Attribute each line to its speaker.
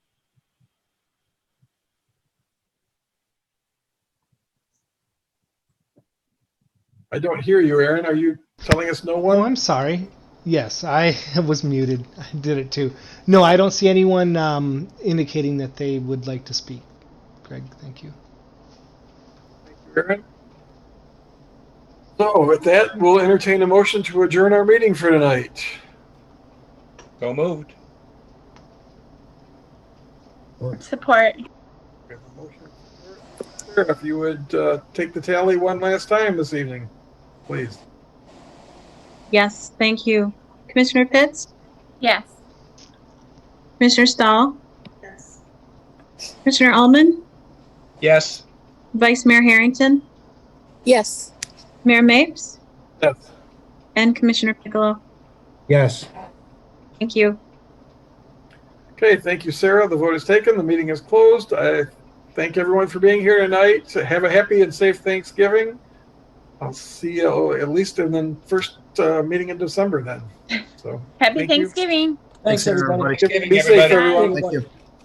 Speaker 1: I don't hear you, Aaron. Are you telling us no
Speaker 2: Oh,
Speaker 1: one?
Speaker 2: I'm sorry. Yes, I was muted. I did it too. No, I don't see anyone um, indicating that they would like to speak. Greg, thank you.
Speaker 1: Aaron? So with that, we'll entertain a motion to adjourn our meeting for tonight.
Speaker 3: So moved.
Speaker 4: Support.
Speaker 1: We have a motion. Sarah, If you would uh, take the tally one last time this evening, please.
Speaker 5: Yes, thank you. Commissioner Pitts?
Speaker 4: Yes.
Speaker 5: Commissioner Stahl?
Speaker 4: Yes.
Speaker 5: Commissioner Almond?
Speaker 3: Yes.
Speaker 5: Vice Mayor Harrington?
Speaker 6: Yes.
Speaker 5: Mayor Mapes?
Speaker 1: Yes.
Speaker 5: And Commissioner Piccolo?
Speaker 7: Yes.
Speaker 5: Thank you.
Speaker 1: Okay, thank you, Sarah. The vote is taken. The meeting is closed. I thank everyone for being here tonight. Have a happy and safe Thanksgiving. I'll see you at least in the first uh, meeting in December then. So
Speaker 4: Happy
Speaker 1: Thank you.
Speaker 4: Thanksgiving.
Speaker 7: Thanks, everybody.
Speaker 1: be safe,
Speaker 3: everybody.
Speaker 1: everyone.
Speaker 7: Thank you.